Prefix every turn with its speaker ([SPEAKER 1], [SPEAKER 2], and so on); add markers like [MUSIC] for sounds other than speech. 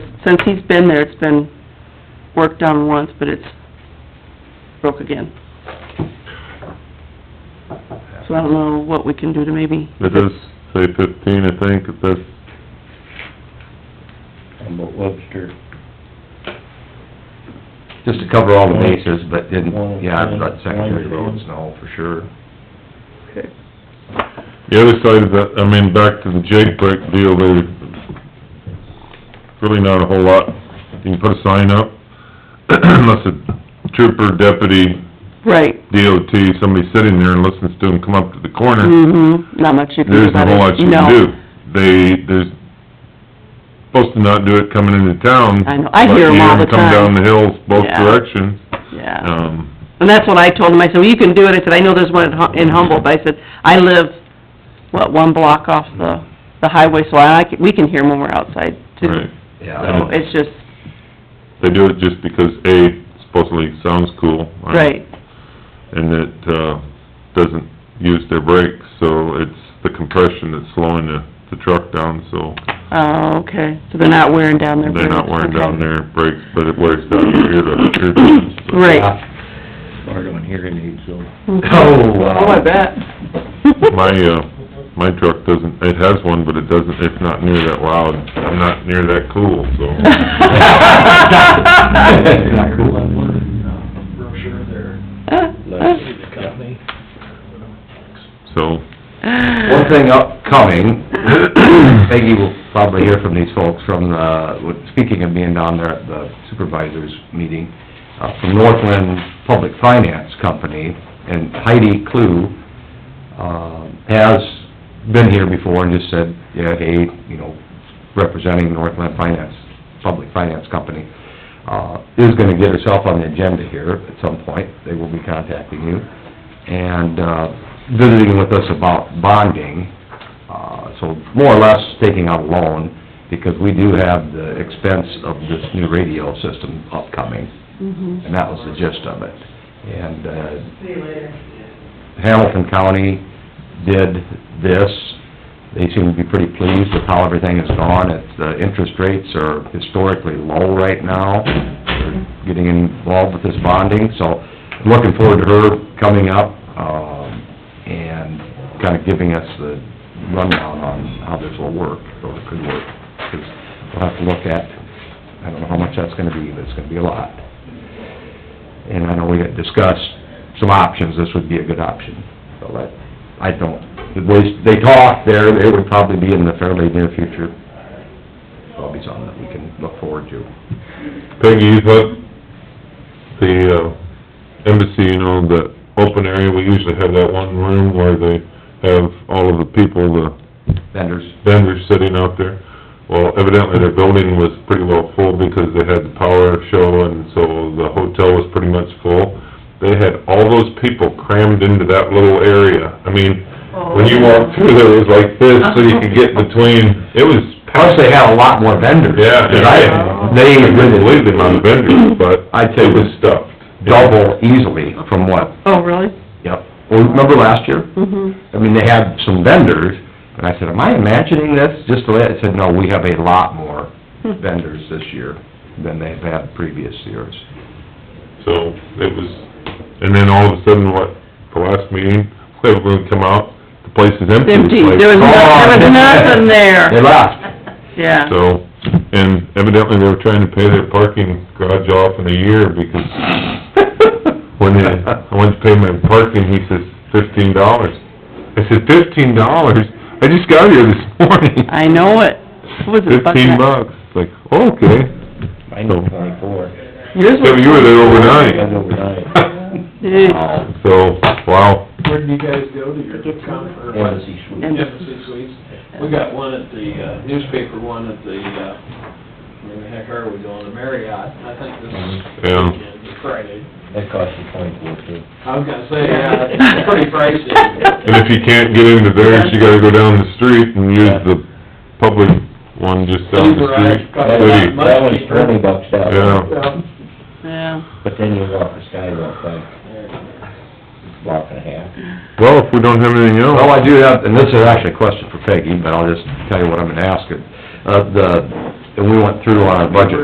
[SPEAKER 1] since he's been there, it's been worked on once, but it's broke again. So I don't know what we can do to maybe,
[SPEAKER 2] It does say fifteen, I think, if that's,
[SPEAKER 3] Humboldt Webster.
[SPEAKER 4] Just to cover all the bases, but then,
[SPEAKER 3] One of
[SPEAKER 4] yeah,
[SPEAKER 3] ten,
[SPEAKER 4] about secondary
[SPEAKER 3] one of
[SPEAKER 4] roads
[SPEAKER 3] ten.
[SPEAKER 4] and all, for sure.
[SPEAKER 2] the other side of that, I mean, back to the Jake Brick deal, there's really not a whole lot. You can put a sign up, [CLEARS THROAT] unless a trooper, deputy,
[SPEAKER 1] right,
[SPEAKER 2] DOT, somebody sitting there and listens to them come up to the corner,
[SPEAKER 1] mhm, not much you can do
[SPEAKER 2] there's not
[SPEAKER 1] about
[SPEAKER 2] a
[SPEAKER 1] it.
[SPEAKER 2] whole lot you
[SPEAKER 1] No.
[SPEAKER 2] can do. They, there's, supposed to not do it coming into town.
[SPEAKER 1] I know. I hear 'em all the time.
[SPEAKER 2] But you hear 'em come down the hills both
[SPEAKER 1] Yeah.
[SPEAKER 2] directions,
[SPEAKER 1] Yeah,
[SPEAKER 2] um,
[SPEAKER 1] and that's what I told him, I said, well, you can do it, I said, I know there's one in Hum- in Humboldt, but I said, I live, what, one block off the, the highway, so I, can- we can hear 'em when we're outside too.
[SPEAKER 2] right.
[SPEAKER 4] Yeah, I
[SPEAKER 1] So,
[SPEAKER 4] don't,
[SPEAKER 1] it's just,
[SPEAKER 2] They do it just because, A, supposedly sounds cool. I-
[SPEAKER 1] right,
[SPEAKER 2] And it, uh, doesn't use their brakes, so it's the compression that's slowing the, the truck down, so
[SPEAKER 1] oh, okay, so they're not wearing down their brakes.
[SPEAKER 2] they're not wearing down
[SPEAKER 1] okay.
[SPEAKER 2] their brakes, but it wears down your ear, your eardrums. so.
[SPEAKER 1] Right.
[SPEAKER 3] Smart on hearing aids, so.
[SPEAKER 4] [LAUGHS] Oh, wow.
[SPEAKER 1] Oh, I bet. [LAUGHS]
[SPEAKER 2] My, uh, my truck doesn't, it has one, but it doesn't, it's not near that loud, I'm not near that cool, so.
[SPEAKER 3] Not cool.
[SPEAKER 5] um, brochure there, the company.
[SPEAKER 2] So,
[SPEAKER 4] [LAUGHS] One thing upcoming, [COUGHS] Peggy will probably hear from these folks from, uh, with- speaking of being down there at the supervisors meeting, uh, from Northland Public Finance Company, and Heidi Clue, uh, has been here before and just said, yeah, hey, you know, representing Northland Finance, Public Finance Company, uh, is gonna get herself on the agenda here at some point, they will be contacting you, and, uh, visiting with us about bonding, uh, so more or less taking out a loan, because we do have the expense of this new radio system upcoming,
[SPEAKER 1] Mhm.
[SPEAKER 4] and that was the gist of it. And, uh, Hamilton County did this. They seem to be pretty pleased with how everything has gone. It's, the interest rates are historically low right now. They're getting involved with this bonding, so I'm looking forward to her coming up, um, and kinda giving us the rundown on how this will work, or could work. 'Cause we'll have to look at, I don't know how much that's gonna be, but it's gonna be a lot. And I know we had discussed some options, this would be a good option, so that, I don't, the voice, they talk there, it would probably be in the fairly near future. Probably something that we can look forward to.
[SPEAKER 2] Peggy, you thought the, uh, embassy, you know, the open area, we usually have that one room where they have all of the people, the
[SPEAKER 4] Vendors,
[SPEAKER 2] vendors sitting out there. Well, evidently their building was pretty well full because they had the power show and so the hotel was pretty much full. They had all those people crammed into that little area. I mean, when you
[SPEAKER 4] Oh.
[SPEAKER 2] walked through there, it was like this, so you could get between, it was
[SPEAKER 4] plus
[SPEAKER 2] packed.
[SPEAKER 4] they have a lot more vendors.
[SPEAKER 2] Yeah.
[SPEAKER 4] 'cause I, they
[SPEAKER 2] I couldn't
[SPEAKER 4] really
[SPEAKER 2] believe the amount of vendors, but
[SPEAKER 4] I'd say
[SPEAKER 2] it
[SPEAKER 4] it
[SPEAKER 2] was
[SPEAKER 4] was
[SPEAKER 2] stuffed.
[SPEAKER 4] double easily from what,
[SPEAKER 1] Oh, really?
[SPEAKER 4] yep. Well, remember last year?
[SPEAKER 1] Mm-hmm.
[SPEAKER 4] I mean, they had some vendors, and I said, am I imagining this? Just the way, I said, no, we have a lot more vendors this year than they've had previous years.
[SPEAKER 2] So it was, and then all of a sudden, what, the last meeting, [LAUGHS] everyone come out, the place is empty. It's
[SPEAKER 1] Empty,
[SPEAKER 2] like,
[SPEAKER 1] there was, no- there was nothing
[SPEAKER 4] They
[SPEAKER 1] there, [LAUGHS]
[SPEAKER 4] left.
[SPEAKER 1] yeah.
[SPEAKER 2] So, and evidently they were trying to pay their parking garage off in a year because when they, I went to pay my parking, he says fifteen dollars. I said, fifteen dollars? I just got here this [LAUGHS] morning.
[SPEAKER 1] I know it. What was it? buck
[SPEAKER 2] Fifteen
[SPEAKER 1] nut?
[SPEAKER 2] bucks. It's Like, oh, okay.
[SPEAKER 3] I know twenty-four.
[SPEAKER 1] Yours
[SPEAKER 2] So you were there Oh.
[SPEAKER 3] That's
[SPEAKER 2] overnight.
[SPEAKER 4] [LAUGHS]
[SPEAKER 3] overnight.
[SPEAKER 1] was...
[SPEAKER 2] So, wow.
[SPEAKER 5] Where do you guys go to your conference?
[SPEAKER 3] Embassy Suites.
[SPEAKER 1] And-
[SPEAKER 5] Embassy Suites. We got one at the, uh, newspaper one at the, uh, where the heck are we going, the Marriott, I think this is
[SPEAKER 2] Yeah.
[SPEAKER 5] weekend, Friday.
[SPEAKER 3] That cost you twenty-four, too.
[SPEAKER 5] I was gonna say, yeah, it's pretty
[SPEAKER 2] [LAUGHS]
[SPEAKER 5] pricey.
[SPEAKER 2] And if you can't get into theirs, you gotta go down the street and use the public one just down the street.
[SPEAKER 5] Uber, I-
[SPEAKER 2] City.
[SPEAKER 3] That was twenty bucks out.
[SPEAKER 2] Yeah.
[SPEAKER 5] Yeah.
[SPEAKER 1] Yeah,
[SPEAKER 3] But then you walk the skywalk like a block and a half.
[SPEAKER 2] Well, if we don't have anything else.
[SPEAKER 4] Well, I do have, and this is actually a question for Peggy, but I'll just tell you what I'm gonna ask it. Uh, the and we went through on our budget